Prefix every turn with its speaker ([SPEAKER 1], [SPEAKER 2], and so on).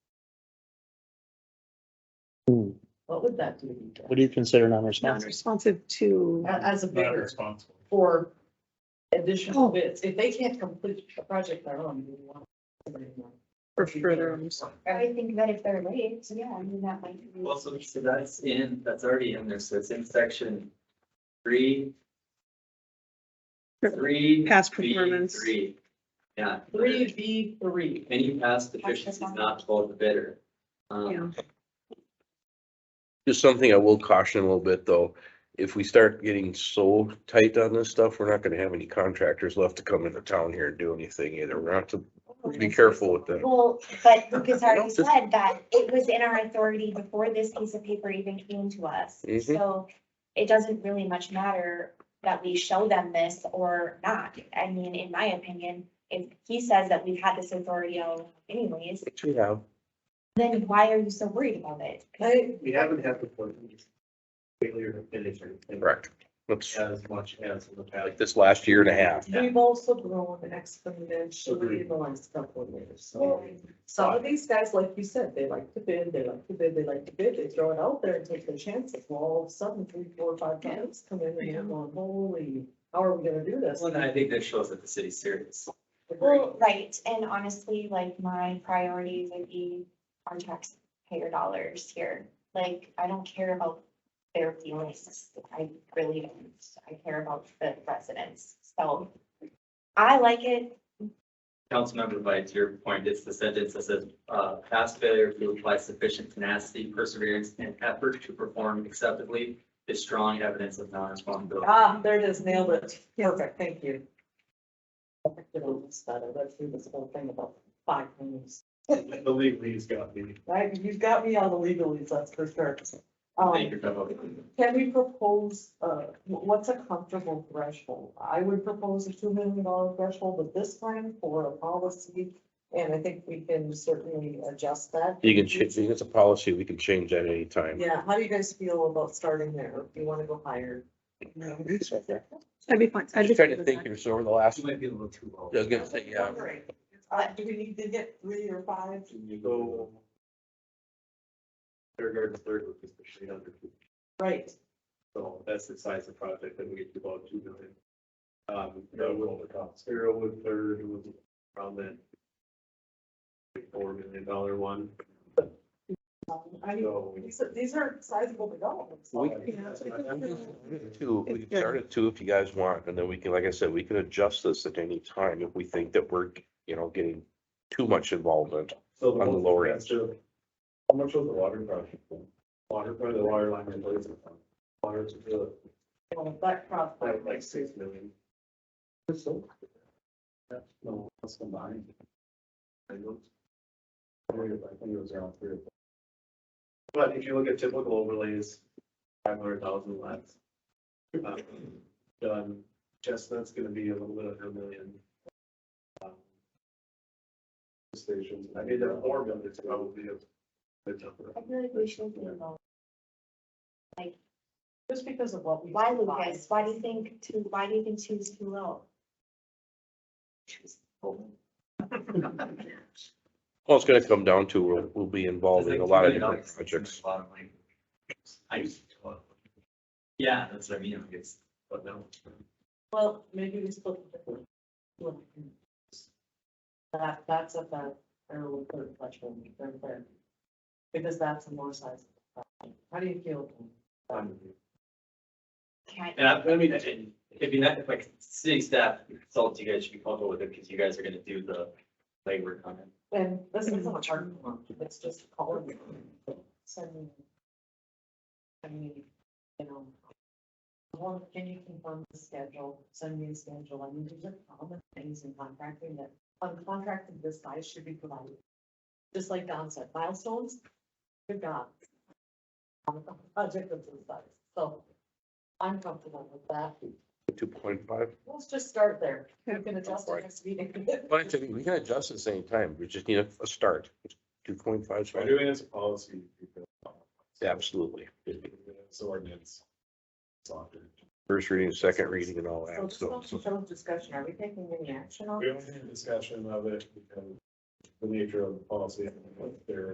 [SPEAKER 1] What would that do?
[SPEAKER 2] What do you consider non-responders?
[SPEAKER 3] responsive to,
[SPEAKER 1] A- As a
[SPEAKER 4] Not
[SPEAKER 1] bidder
[SPEAKER 4] responsible.
[SPEAKER 1] for additional
[SPEAKER 3] Oh.
[SPEAKER 1] bids, if they can't complete a project their own, you want. somebody more.
[SPEAKER 3] or further, I'm sorry.
[SPEAKER 5] I think that if they're late, so yeah, I mean, that might be.
[SPEAKER 6] Well, so so that's in, that's already in there, so it's in section three. Three.
[SPEAKER 3] Past
[SPEAKER 6] B,
[SPEAKER 3] performance.
[SPEAKER 6] Three, yeah.
[SPEAKER 1] Three B three.
[SPEAKER 6] Any past deficiency is not below the bidder.
[SPEAKER 3] Yeah.
[SPEAKER 6] Um,
[SPEAKER 7] Just something I will caution a little bit though, if we start getting so tight on this stuff, we're not gonna have any contractors left to come into town here and do anything either. We're not to be careful with that.
[SPEAKER 5] Well, but Lucas already said that it was in our authority before this piece of paper even came to us.
[SPEAKER 7] Mhm.
[SPEAKER 5] So it doesn't really much matter that we show them this or not. I mean, in my opinion, if he says that we've had this authority all anyways,
[SPEAKER 7] Which we have.
[SPEAKER 5] then why are you so worried about it?
[SPEAKER 1] I,
[SPEAKER 4] We haven't had the point failure to finish anything.
[SPEAKER 7] Correct. That's
[SPEAKER 4] As much as in the past.
[SPEAKER 7] like this last year and a half.
[SPEAKER 1] we've also grown exponentially in the last couple of years, so. Some of these guys, like you said, they like to bid, they like to bid, they like to bid, they throw it out there and take their chances, well, all of a sudden, three, four, five times come in and you're going, holy, how are we gonna do this?
[SPEAKER 6] Well, I think that shows that the city's serious.
[SPEAKER 5] Well, right, and honestly, like my priority would be our taxpayer dollars here. Like, I don't care about their feelings. I really don't. I care about the residents. So I like it.
[SPEAKER 6] Councilmember White, to your point, it's the sentence that says, uh, past failure to apply sufficient tenacity, perseverance, and effort to perform acceptably is strong evidence of non-responsibility.
[SPEAKER 1] Ah, there it is, nailed it. Perfect, thank you. I picked it up this better. Let's do this whole thing about five minutes.
[SPEAKER 4] The legalese got me.
[SPEAKER 1] Right, you've got me on the legalese, that's for sure.
[SPEAKER 6] Thank
[SPEAKER 1] Um,
[SPEAKER 6] you, Bevo.
[SPEAKER 1] can we propose, uh, wh- what's a comfortable threshold? I would propose a two million dollar threshold at this time for a policy. And I think we can certainly adjust that.
[SPEAKER 7] You can change, it's a policy, we can change that anytime.
[SPEAKER 1] Yeah, how do you guys feel about starting there? Do you wanna go higher?
[SPEAKER 3] I'd be fine. I'd
[SPEAKER 7] I'm
[SPEAKER 3] be
[SPEAKER 7] just trying
[SPEAKER 3] fine
[SPEAKER 7] to
[SPEAKER 3] with
[SPEAKER 7] think
[SPEAKER 3] that.
[SPEAKER 7] here, so over the last,
[SPEAKER 6] You
[SPEAKER 7] I
[SPEAKER 6] might be a little too low.
[SPEAKER 7] was gonna say, yeah.
[SPEAKER 1] Wondering, Uh, do we need to get three or five?
[SPEAKER 4] Can you go? Third yard, and third, which is the shade under two.
[SPEAKER 1] Right,
[SPEAKER 4] So that's the size of project that we get to about two million. Um, that would, zero would third was around that. Four million dollar one,
[SPEAKER 1] um, I mean,
[SPEAKER 4] so.
[SPEAKER 1] These are, these are sizable developments.
[SPEAKER 7] We- Two, we can start at two if you guys want, and then we can, like I said, we can adjust this at any time if we think that we're, you know, getting too much involvement.
[SPEAKER 4] So
[SPEAKER 7] on the lower end.
[SPEAKER 4] expensive- How much was the water project? Water, probably the water line replacement. Water to the,
[SPEAKER 1] Well, That cross.
[SPEAKER 4] like, like six million. That's no, that's combined. I looked. I think it- I think it was around three or four. But if you look at typical overlays, five hundred thousand less. Um, Done, Chestnut's gonna be a little bit under a million. Um, Stations, I mean, the four million is probably a good number.
[SPEAKER 5] I feel like we should be alone.
[SPEAKER 1] Just because of what we.
[SPEAKER 5] Why, Lucas? Why do you think two, why do you think two is too low?
[SPEAKER 7] Well, it's gonna come down to, we'll, we'll be
[SPEAKER 6] It's
[SPEAKER 7] involving
[SPEAKER 6] like
[SPEAKER 7] a lot of
[SPEAKER 6] $2 million
[SPEAKER 7] different
[SPEAKER 6] is
[SPEAKER 7] projects.
[SPEAKER 6] a lot of money. I used to. love it. Yeah, that's what I mean, I guess, but no.
[SPEAKER 1] Well, maybe we split it differently. That, that's a fair, fair little bit of question, fair, fair. Because that's a more sizable. project. How do you feel?
[SPEAKER 4] Um,
[SPEAKER 5] Can't,
[SPEAKER 6] And I, I mean, if if you, if like city staff consultants, you guys should be comfortable with it, because you guys are gonna do the labor on it.
[SPEAKER 1] And this is not a hard one, it's just calling. Sending. I mean, you know. Well, can you confirm the schedule, send me a schedule, I mean, there's a common things in contracting that, on contracting this size should be provided. Just like Don said, milestones, good God. On a Project of this size, so I'm comfortable with that,
[SPEAKER 7] Two point five.
[SPEAKER 1] let's just start there, we can adjust our next meeting.
[SPEAKER 7] But I think we can adjust at the same time. We just need a, a start. Two point five,
[SPEAKER 4] We're doing it as a policy.
[SPEAKER 7] absolutely.
[SPEAKER 4] It's ordinance. Soccer.
[SPEAKER 7] First reading, second reading and all
[SPEAKER 1] So
[SPEAKER 7] that,
[SPEAKER 1] just
[SPEAKER 7] so.
[SPEAKER 1] want to show discussion, are we taking any action on
[SPEAKER 4] We
[SPEAKER 1] it?
[SPEAKER 4] don't need a discussion of it because the nature of the policy, and what they're